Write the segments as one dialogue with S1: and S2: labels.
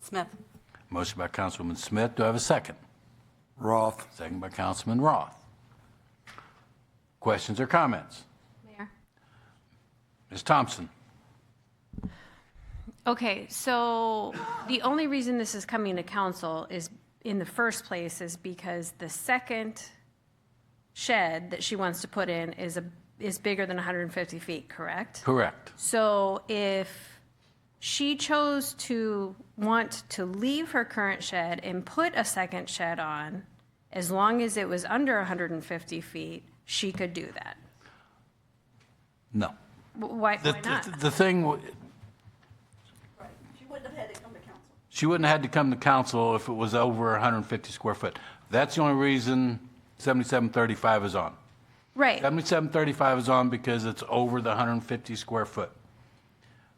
S1: Smith.
S2: Motion by Councilwoman Smith. Do I have a second?
S3: Roth.
S2: Second by Councilman Roth. Questions or comments?
S4: Mayor.
S2: Ms. Thompson?
S4: Okay, so the only reason this is coming to council is, in the first place, is because the second shed that she wants to put in is a, is bigger than 150 feet, correct?
S2: Correct.
S4: So if she chose to want to leave her current shed and put a second shed on, as long as it was under 150 feet, she could do that.
S2: No.
S4: W- Why,
S2: The-
S4: why not?
S2: The the thing, w-
S1: She wouldn't have had to come to council.
S2: she wouldn't have had to come to council if it was over 150 square foot. That's the only reason 7735 is on.
S4: Right.
S2: 7735 is on because it's over the 150 square foot.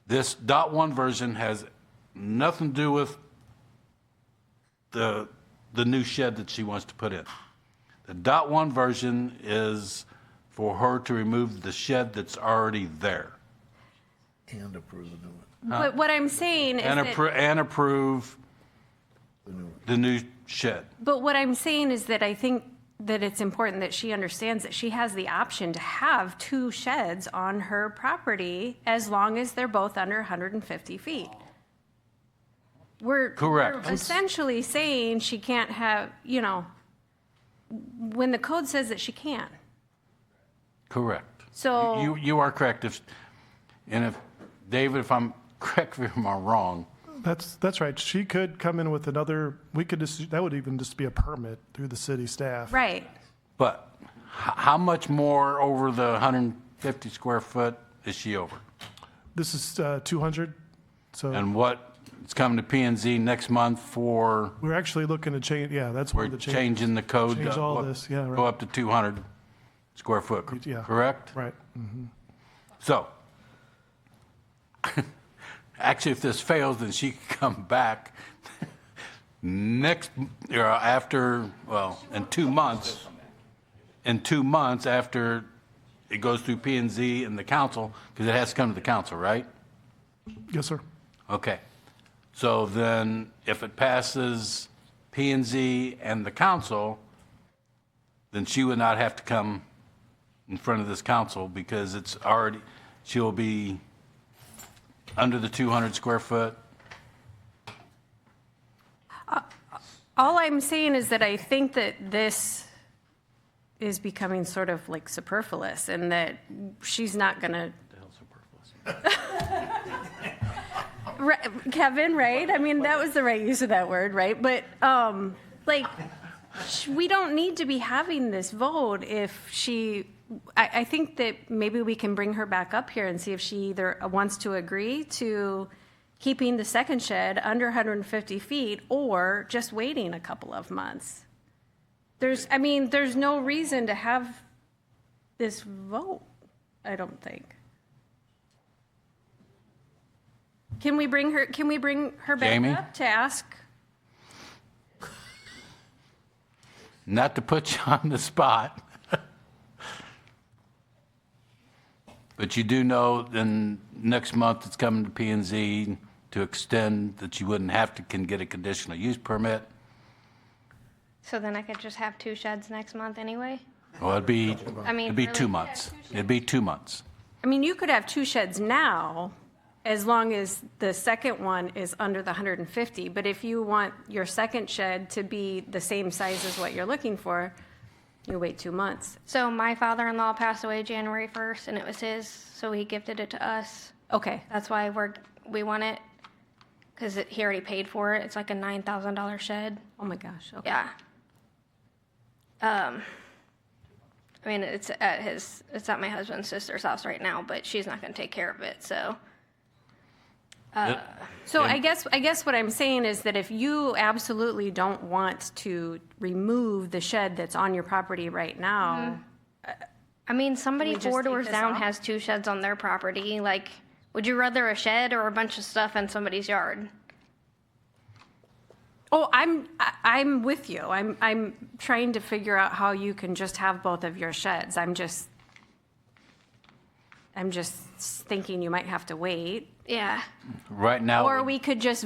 S2: This dot one version has nothing to do with the, the new shed that she wants to put in. The dot one version is for her to remove the shed that's already there
S3: And approve the new one.
S4: But what I'm saying is
S2: and
S4: that-
S2: appro, and approve the new shed.
S4: But what I'm saying is that I think that it's important that she understands that she has the option to have two sheds on her property as long as they're both under 150 feet. We're.
S2: Correct.
S4: we're Essentially saying she can't have, you know, when the code says that she can.
S2: Correct.
S4: So-
S2: You, you are correct. If, and if, David, if I'm correct, if I'm wrong,
S5: That's, that's right. She could come in with another, we could just, that would even just be a permit through the city staff.
S4: Right.
S2: But h- how much more over the 150 square foot is she over?
S5: This is uh, 200, so
S2: And what, it's coming to P and Z next month for,
S5: we're actually looking to change, yeah, that's one
S2: we're
S5: of the changes.
S2: changing the code. to
S5: change all
S2: go up-
S5: this, yeah, right.
S2: Go up to 200 square foot, cor-
S5: Yeah.
S2: correct?
S5: Right. Mm.
S2: So, actually, if this fails, then she can come back next, or after, well, in two months, in two months after it goes through P and Z and the council, because it has to come to the council, right?
S5: Yes, sir.
S2: Okay. So then, if it passes P and Z and the council, then she would not have to come in front of this council because it's already, she'll be under the 200 square foot.
S4: All I'm saying is that I think that this is becoming sort of like superfluous and that she's not going to. Right, Kevin, right? I mean, that was the right use of that word, right? But um, like, sh- we don't need to be having this vote if she. I, I think that maybe we can bring her back up here and see if she either wants to agree to keeping the second shed under 150 feet or just waiting a couple of months. There's, I mean, there's no reason to have this vote. I don't think. Can we bring her? Can we bring her back
S2: Jamie?
S4: up to ask?
S2: Not to put you on the spot. But you do know then next month it's coming to P and Z to extend that you wouldn't have to can get a conditional use permit.
S6: So then I could just have two sheds next month anyway?
S2: Well, it'd be,
S6: I mean,
S2: it'd be two
S6: really?
S2: months. It'd be two months.
S4: I mean, you could have two sheds now, as long as the second one is under the 150. But if you want your second shed to be the same size as what you're looking for, you wait two months.
S6: So my father-in-law passed away January 1st and it was his, so he gifted it to us.
S4: Okay,
S6: That's why we're, we want it, because he already paid for it. It's like a $9,000 shed.
S4: oh my gosh, okay.
S6: Yeah. Um, I mean, it's at his, it's at my husband's sister's house right now, but she's not going to take care of it, so.
S4: So I guess, I guess what I'm saying is that if you absolutely don't want to remove the shed that's on your property right now,
S6: I mean, somebody
S4: we just
S6: four
S4: take
S6: doors
S4: this
S6: down
S4: off?
S6: has two sheds on their property. Like, would you rather a shed or a bunch of stuff in somebody's yard?
S4: oh, I'm, I- I'm with you. I'm, I'm trying to figure out how you can just have both of your sheds. I'm just, I'm just thinking you might have to wait.
S6: Yeah.
S2: Right now. it
S4: Or
S2: would
S4: we could just